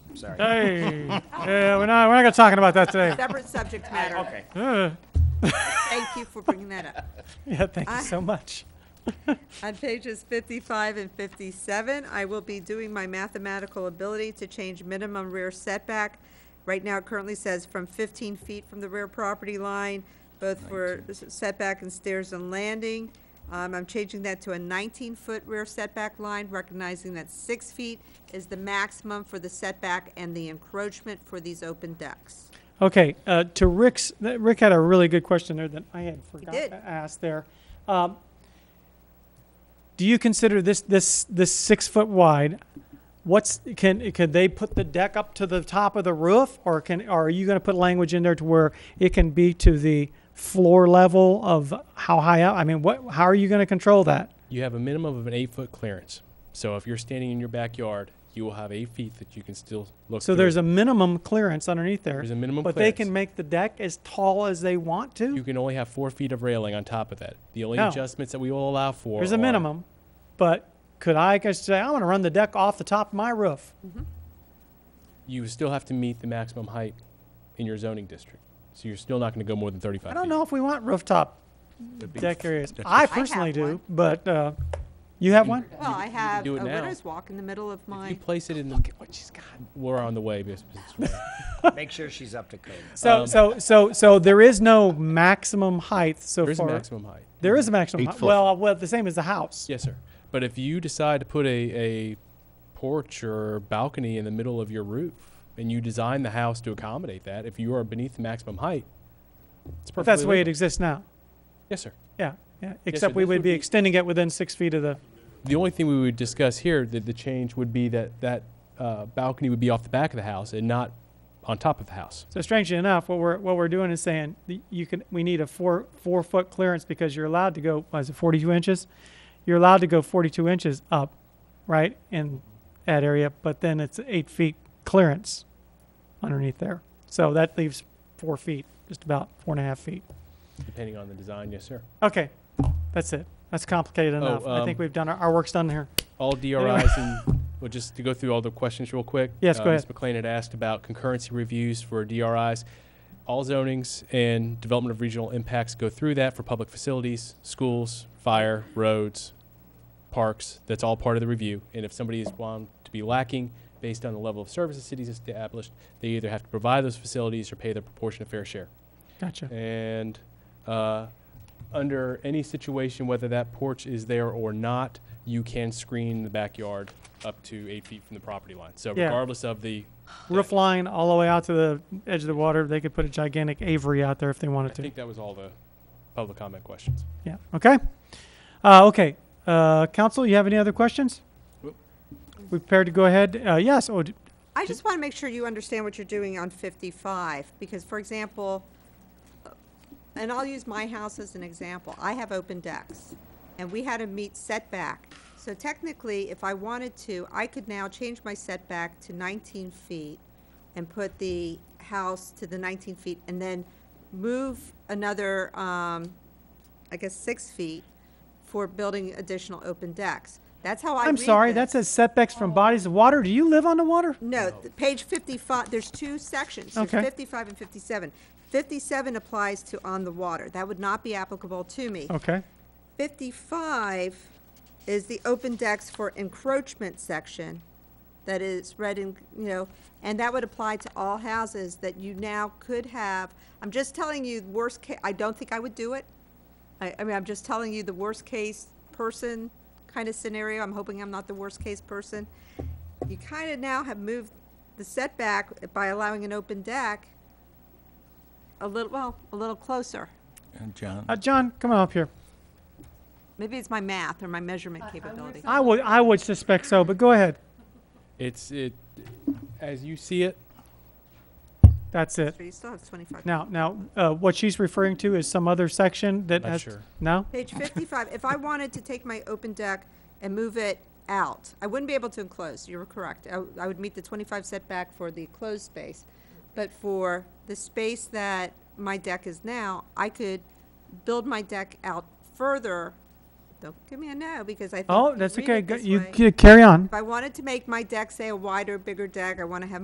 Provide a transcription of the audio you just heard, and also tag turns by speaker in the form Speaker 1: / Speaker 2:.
Speaker 1: sorry.
Speaker 2: Hey, yeah, we're not, we're not talking about that today.
Speaker 3: Separate subject matter.
Speaker 1: Okay.
Speaker 2: Uh,
Speaker 3: Thank you for bringing that up.
Speaker 2: Yeah, thank you
Speaker 3: I-
Speaker 2: so much.
Speaker 3: On pages 55 and 57, I will be doing my mathematical ability to change minimum rear setback. Right now, it currently says from 15 feet from the rear property line, both for setback and stairs and landing. Um, I'm changing that to a 19-foot rear setback line, recognizing that six feet is the maximum for the setback and the encroachment for these open decks.
Speaker 2: Okay, uh, to Rick's, that- Rick had a really good question there that I had forgot
Speaker 3: did.
Speaker 2: to ask there. Um, do you consider this, this, this six foot wide? What's, can, could they put the deck up to the top of the roof? Or can, are you going to put language in there to where it can be to the floor level of how high up? I mean, what, how are you going to control that?
Speaker 4: You have a minimum of an eight foot clearance. So if you're standing in your backyard, you will have eight feet that you can still look.
Speaker 2: So
Speaker 4: through.
Speaker 2: there's a minimum clearance underneath there.
Speaker 4: There's a minimum
Speaker 2: But they
Speaker 4: clearance.
Speaker 2: can make the deck as tall as they want
Speaker 4: You
Speaker 2: to.
Speaker 4: can only have four feet of railing on top of that. The only
Speaker 2: No.
Speaker 4: adjustments that we will allow for
Speaker 2: There's a
Speaker 4: are-
Speaker 2: minimum, but could I just say, I want to run the deck off the top of my roof?
Speaker 4: You still have to meet the maximum height in your zoning district. So you're still not going to go more than 35
Speaker 2: I don't
Speaker 4: feet.
Speaker 2: know if we want rooftop deck areas. I personally do,
Speaker 3: one.
Speaker 2: but, uh, you have one?
Speaker 3: Well, I have a
Speaker 4: do it now.
Speaker 3: winner's walk in the middle of
Speaker 4: If
Speaker 3: my,
Speaker 4: you place it in the. Look at what she's got. We're on the way. Miss- Miss-
Speaker 1: Make sure she's up to code.
Speaker 4: Um,
Speaker 2: So, so, so, so there is no maximum height so far.
Speaker 4: There is a maximum height.
Speaker 2: There is a maximum.
Speaker 5: Eight
Speaker 2: hei-
Speaker 5: foot.
Speaker 2: Well, uh, well, the same as the house.
Speaker 4: Yes, sir. But if you decide to put a, a porch or balcony in the middle of your roof and you design the house to accommodate that, if you are beneath the maximum height, it's
Speaker 2: But
Speaker 4: perfectly
Speaker 2: that's the way it
Speaker 4: legal.
Speaker 2: exists now.
Speaker 4: Yes, sir.
Speaker 2: Yeah, yeah. Except
Speaker 4: so
Speaker 2: we
Speaker 4: this
Speaker 2: would
Speaker 4: would
Speaker 2: be
Speaker 4: be-
Speaker 2: extending it within six feet of the,
Speaker 4: The only thing we would discuss here, the, the change would be that that uh, balcony would be off the back of the house and not on top of the house.
Speaker 2: So strangely enough, what we're what we're doing is saying that you can we need a four four foot clearance because you're allowed to go what is it 42 inches? You're allowed to go 42 inches up, right in that area, but then it's eight feet clearance underneath there. So that leaves four feet, just about four and a half feet.
Speaker 4: Depending on the design, yes, sir.
Speaker 2: Okay, that's it. That's complicated enough. I think
Speaker 4: um,
Speaker 2: we've done our, our work's done here.
Speaker 4: All DRIs and, well, just to go through all the questions real quick.
Speaker 2: Yes,
Speaker 4: uh,
Speaker 2: go
Speaker 4: Ms.
Speaker 2: ahead.
Speaker 4: McLean had asked about concurrency reviews for DRIs. All zonings and development of regional impacts go through that for public facilities, schools, fire, roads, parks. That's all part of the review. And if somebody is found to be lacking based on the level of services cities established, they either have to provide those facilities or pay their proportionate fair share.
Speaker 2: Gotcha.
Speaker 4: And uh, under any situation, whether that porch is there or not, you can screen the backyard up to eight feet from the property line. So
Speaker 2: Yeah.
Speaker 4: regardless of the,
Speaker 2: Roof line all the way out to the edge of the water. They could put a gigantic Avery out there if they
Speaker 4: I
Speaker 2: wanted to.
Speaker 4: think that was all the public comment questions.
Speaker 2: Yeah, okay. Uh, okay, uh, council, you have any other questions?
Speaker 4: Whoop.
Speaker 2: We prepared to go ahead, uh, yes, oh, d-
Speaker 3: I just want to make sure you understand what you're doing on 55, because, for example, and I'll use my house as an example, I have open decks, and we had to meet setback. So technically, if I wanted to, I could now change my setback to 19 feet and put the house to the 19 feet, and then move another, um, I guess, six feet for building additional open decks. That's how I
Speaker 2: I'm
Speaker 3: read
Speaker 2: sorry, that
Speaker 3: this.
Speaker 2: says setbacks from bodies of water, do you live on the water?
Speaker 3: No, th- page 55, there's two sections. There's
Speaker 2: Okay.
Speaker 3: 55 and 57. 57 applies to on the water. That would not be applicable to me.
Speaker 2: Okay,
Speaker 3: 55 is the open decks for encroachment section that is read in, you know, and that would apply to all houses that you now could have. I'm just telling you, worst case, I don't think I would do it. I, I mean, I'm just telling you the worst case person kind of scenario. I'm hoping I'm not the worst case person. You kind of now have moved the setback by allowing an open deck a little, well, a little closer.
Speaker 5: And John,
Speaker 2: uh, John, come on up here.
Speaker 3: Maybe it's my math or my measurement capability.
Speaker 2: I would, I would suspect so, but go ahead,
Speaker 4: It's, it, as you see it,
Speaker 2: that's it.
Speaker 3: So you still have 25.
Speaker 2: Now, now, uh, what she's referring to is some other section that
Speaker 4: Not
Speaker 2: has,
Speaker 4: sure.
Speaker 2: no?
Speaker 3: Page 55, if I wanted to take my open deck and move it out, I wouldn't be able to enclose, you were correct. I w- I would meet the 25 setback for the closed space. But for the space that my deck is now, I could build my deck out further. Don't give me a no, because I think.
Speaker 2: Oh,
Speaker 3: you
Speaker 2: that's
Speaker 3: read
Speaker 2: okay,
Speaker 3: it
Speaker 2: Go-
Speaker 3: this
Speaker 2: you,
Speaker 3: way.
Speaker 2: you carry on.
Speaker 3: If I wanted to make my deck, say, a wider, bigger deck, I want to have